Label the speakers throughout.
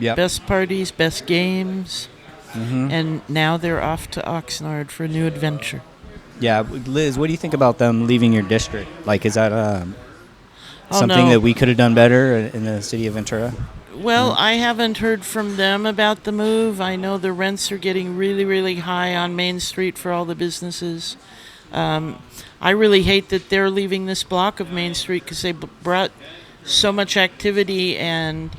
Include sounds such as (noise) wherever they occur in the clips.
Speaker 1: Yep. Mm-hmm.
Speaker 2: best parties, best games. And now they're off to Oxnard for a new adventure.
Speaker 1: Yeah, Liz, what do you think about them leaving your district? Like, is that um,
Speaker 2: Oh,
Speaker 1: something
Speaker 2: no.
Speaker 1: that we could have done better in- in the city
Speaker 2: (laughs)
Speaker 1: of Ventura?
Speaker 2: Well, I haven't heard from them about the move. I know the rents are getting really, really high on Main Street for all the businesses. Um, I really hate that they're leaving this block of Main Street because they b- brought so much activity and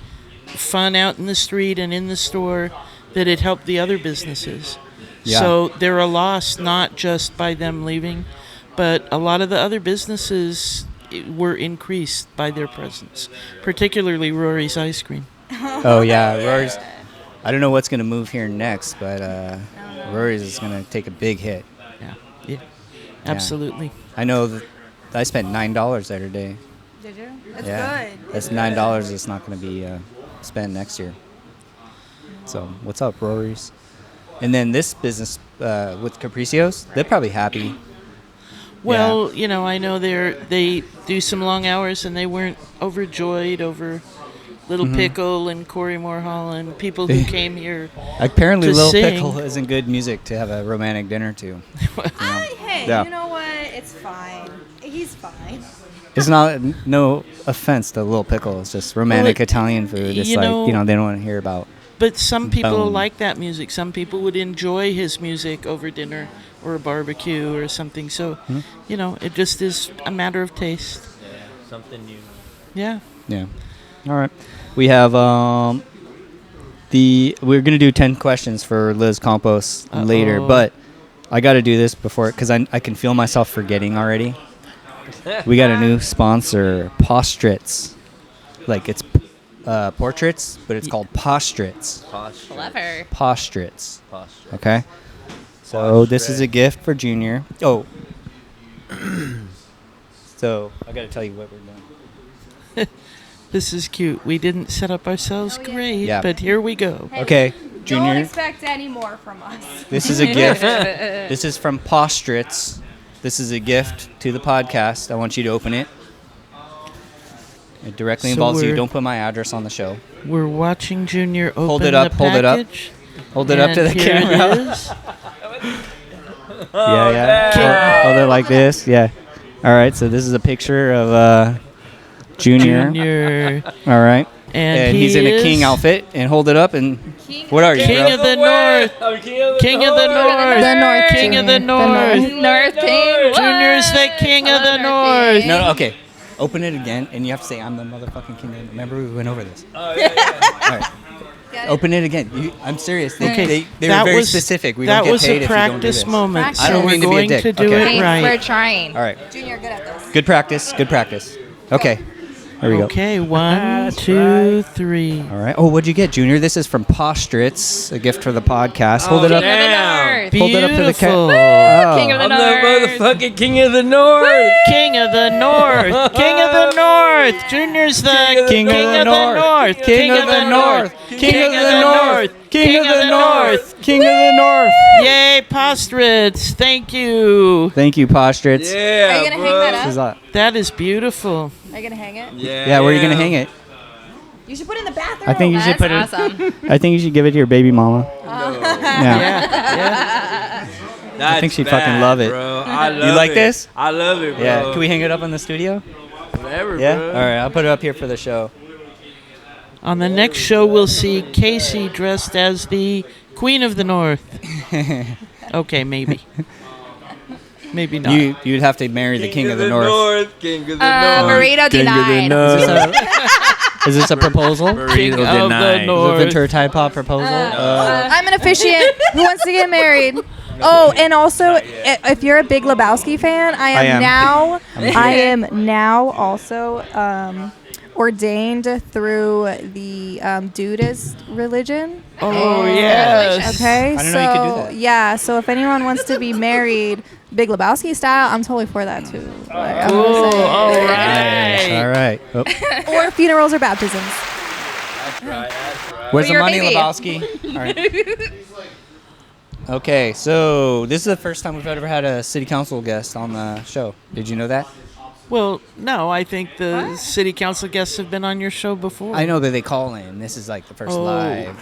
Speaker 2: fun out in the street and in the store that it helped the other businesses.
Speaker 1: Yeah.
Speaker 2: So they're a loss not just by them leaving, but a lot of the other businesses eh, were increased by their presence, particularly Rory's Ice Cream.
Speaker 1: oh yeah, Rory's. I don't know what's gonna move here next, but uh, Rory's is gonna take a big hit.
Speaker 2: Yeah. Yeah. Absolutely.
Speaker 1: I know. That I spent nine dollars there today.
Speaker 3: Did you? That's
Speaker 1: yeah,
Speaker 3: good.
Speaker 1: that's nine dollars. that's not gonna be uh, spent next year. So what's up, Rory's? And then this business uh, with Capricios, they're probably happy.
Speaker 2: Well, you know, I know they're they do some long hours and they weren't overjoyed over Little
Speaker 1: Mm-hmm.
Speaker 2: Pickle and Corey Moorhall and people
Speaker 1: (laughs)
Speaker 2: who came here.
Speaker 1: Apparently,
Speaker 2: To
Speaker 1: Little
Speaker 2: sing.
Speaker 1: Pickle isn't good music to have a romantic dinner to.
Speaker 3: I, hey,
Speaker 1: Yeah.
Speaker 3: you know what? It's fine. He's fine.
Speaker 1: It's not no offense to Little Pickle. It's just romantic
Speaker 2: Well, it-
Speaker 1: Italian food. It's
Speaker 2: you
Speaker 1: like
Speaker 2: know-
Speaker 1: you know they don't want to hear about.
Speaker 2: But some people
Speaker 1: Bone.
Speaker 2: like that music. Some people would enjoy his music over dinner or a barbecue or something. So,
Speaker 1: Hmm?
Speaker 2: you know, it just is a matter of taste.
Speaker 4: Something new.
Speaker 2: Yeah.
Speaker 1: Yeah. All right. We have um the we're gonna do ten questions for Liz Campos later,
Speaker 2: Uh-oh.
Speaker 1: but I got to do this before because I I can feel myself forgetting already. we got a new sponsor, Postrates. Like it's uh, portraits, but it's called Postrates.
Speaker 4: Posture.
Speaker 5: Clever.
Speaker 1: Postrates.
Speaker 4: Posture.
Speaker 1: Okay. So this is a gift for Junior. Oh. (clears throat) so I got to tell you what we're doing.
Speaker 2: This is cute. We didn't set up ourselves
Speaker 3: Oh, yeah.
Speaker 2: great,
Speaker 1: Yeah.
Speaker 2: but here we go.
Speaker 3: Hey,
Speaker 1: Okay,
Speaker 3: Don't
Speaker 1: Junior.
Speaker 3: expect any more from us.
Speaker 1: This is a gift. this is from Postrates. This is a gift to the podcast. I want you to open it. It directly
Speaker 2: So
Speaker 1: involves you.
Speaker 2: we're-
Speaker 1: Don't put my address on the show.
Speaker 2: We're watching Junior open
Speaker 1: Hold it up,
Speaker 2: the
Speaker 1: hold it up.
Speaker 2: package.
Speaker 1: Hold it up to the
Speaker 2: And here it
Speaker 1: (laughs) camera.
Speaker 2: is.
Speaker 1: yeah, yeah. Hold- Hold, it like this. Yeah. All right. So this is a picture of uh, Junior.
Speaker 2: Junior.
Speaker 1: All right.
Speaker 2: And,
Speaker 1: And,
Speaker 2: he
Speaker 1: he's in a king
Speaker 2: is
Speaker 1: outfit. And hold it up. And what are you,
Speaker 2: King
Speaker 1: bro?
Speaker 2: of the North.
Speaker 4: I'm king of the
Speaker 2: King of the
Speaker 4: north.
Speaker 2: North.
Speaker 5: The North
Speaker 2: King of the
Speaker 5: King. The
Speaker 2: North.
Speaker 5: North King.
Speaker 2: Junior's the king of the north.
Speaker 1: no, no. Okay. Open it again, and you have to say, "I'm the motherfucking king." of the-" Remember, we went over this.
Speaker 4: Oh, yeah, yeah.
Speaker 1: (laughs) Open it again. You, I'm serious. They,
Speaker 2: Okay,
Speaker 1: they, they were
Speaker 2: that
Speaker 1: very
Speaker 2: was-
Speaker 1: specific. We
Speaker 2: that
Speaker 1: don't get
Speaker 2: was
Speaker 1: paid
Speaker 2: a
Speaker 1: if you don't do
Speaker 2: practice
Speaker 1: this.
Speaker 2: moment,
Speaker 3: Practice. I
Speaker 2: so
Speaker 3: don't
Speaker 2: we're
Speaker 1: mean to be a
Speaker 2: going
Speaker 1: dick.
Speaker 2: to do
Speaker 1: Okay.
Speaker 2: it
Speaker 5: Thanks for
Speaker 2: right.
Speaker 5: trying.
Speaker 1: All right.
Speaker 3: Junior, good at this.
Speaker 1: Good practice. Good practice. Okay. There we go.
Speaker 2: Okay, one, two, three.
Speaker 1: All right. Oh, what'd you get, Junior? This is from Postritz, a gift for the podcast. Hold it
Speaker 5: King of
Speaker 1: up.
Speaker 5: the
Speaker 4: Damn.
Speaker 5: North.
Speaker 1: Hold it up to the
Speaker 2: Oh,
Speaker 1: Oh.
Speaker 2: Beautiful.
Speaker 1: camera.
Speaker 5: King of the
Speaker 4: I'm
Speaker 5: North.
Speaker 4: the motherfucking king of the north.
Speaker 2: King of the North, King of the North, Junior's the
Speaker 1: King of the North, King of the North, King of the North, King of the North, King of the North.
Speaker 2: Yay, Postritz! Thank you.
Speaker 1: Thank you, Postritz.
Speaker 4: Yeah.
Speaker 3: Are you gonna hang
Speaker 4: bro.
Speaker 3: that up?
Speaker 1: This is a-
Speaker 2: That is beautiful.
Speaker 3: Are you gonna hang it?
Speaker 4: Yeah.
Speaker 1: Yeah, where are you gonna hang it?
Speaker 3: You should put it in the bathroom.
Speaker 1: I think you should
Speaker 5: That's
Speaker 1: put it. (laughs)
Speaker 5: awesome.
Speaker 1: I think you should give it to your baby mama. Yeah.
Speaker 2: Yeah, yeah.
Speaker 4: I
Speaker 1: think she'd fucking love it.
Speaker 4: Bro. I love
Speaker 1: like
Speaker 4: it.
Speaker 1: this?
Speaker 4: I love it, bro.
Speaker 1: Yeah. Can we hang it up on the studio?
Speaker 4: Whatever,
Speaker 1: Yeah.
Speaker 4: bro.
Speaker 1: All right. I'll put it up here for the show.
Speaker 2: On the next show, we'll see Casey dressed as the Queen of the North. Okay, maybe. Maybe not.
Speaker 1: You you'd have to marry the king of the north.
Speaker 4: King of the
Speaker 1: Oh,
Speaker 5: Uh,
Speaker 4: north.
Speaker 5: burrito
Speaker 4: King of the
Speaker 5: denied.
Speaker 1: Is
Speaker 4: north.
Speaker 1: this a- (laughs) Is this a proposal?
Speaker 2: King
Speaker 4: Burrito
Speaker 2: of the
Speaker 4: denied.
Speaker 1: The
Speaker 2: North.
Speaker 1: Ventura Tide Pod proposal. Uh,
Speaker 3: I'm an officiant who wants to
Speaker 1: (laughs)
Speaker 3: get married. Oh, and also, i- if you're a Big Lebowski fan, I am,
Speaker 1: I am. (laughs)
Speaker 3: now. I am now also um, ordained through the um, Dudist religion.
Speaker 2: Oh yes.
Speaker 3: Okay,
Speaker 1: (laughs) I didn't
Speaker 3: so
Speaker 1: know you could do that.
Speaker 3: yeah, so if anyone wants to be married, Big Lebowski style, I'm totally for that too. Like, I'm
Speaker 2: Cool. Oh.
Speaker 3: just
Speaker 2: All
Speaker 1: nice.
Speaker 3: saying.
Speaker 1: Uh, All
Speaker 2: right.
Speaker 1: right. Oh.
Speaker 3: Or funerals or baptisms.
Speaker 1: Where's the
Speaker 5: your
Speaker 1: money,
Speaker 5: baby.
Speaker 1: Lebowski? All right. Okay, so this is the first time we've ever had a city council guest on the show. Did you know that?
Speaker 2: Well, no, I think the city council guests have been on your show before.
Speaker 1: I know that they call in. This is like the first
Speaker 2: Oh.
Speaker 1: live.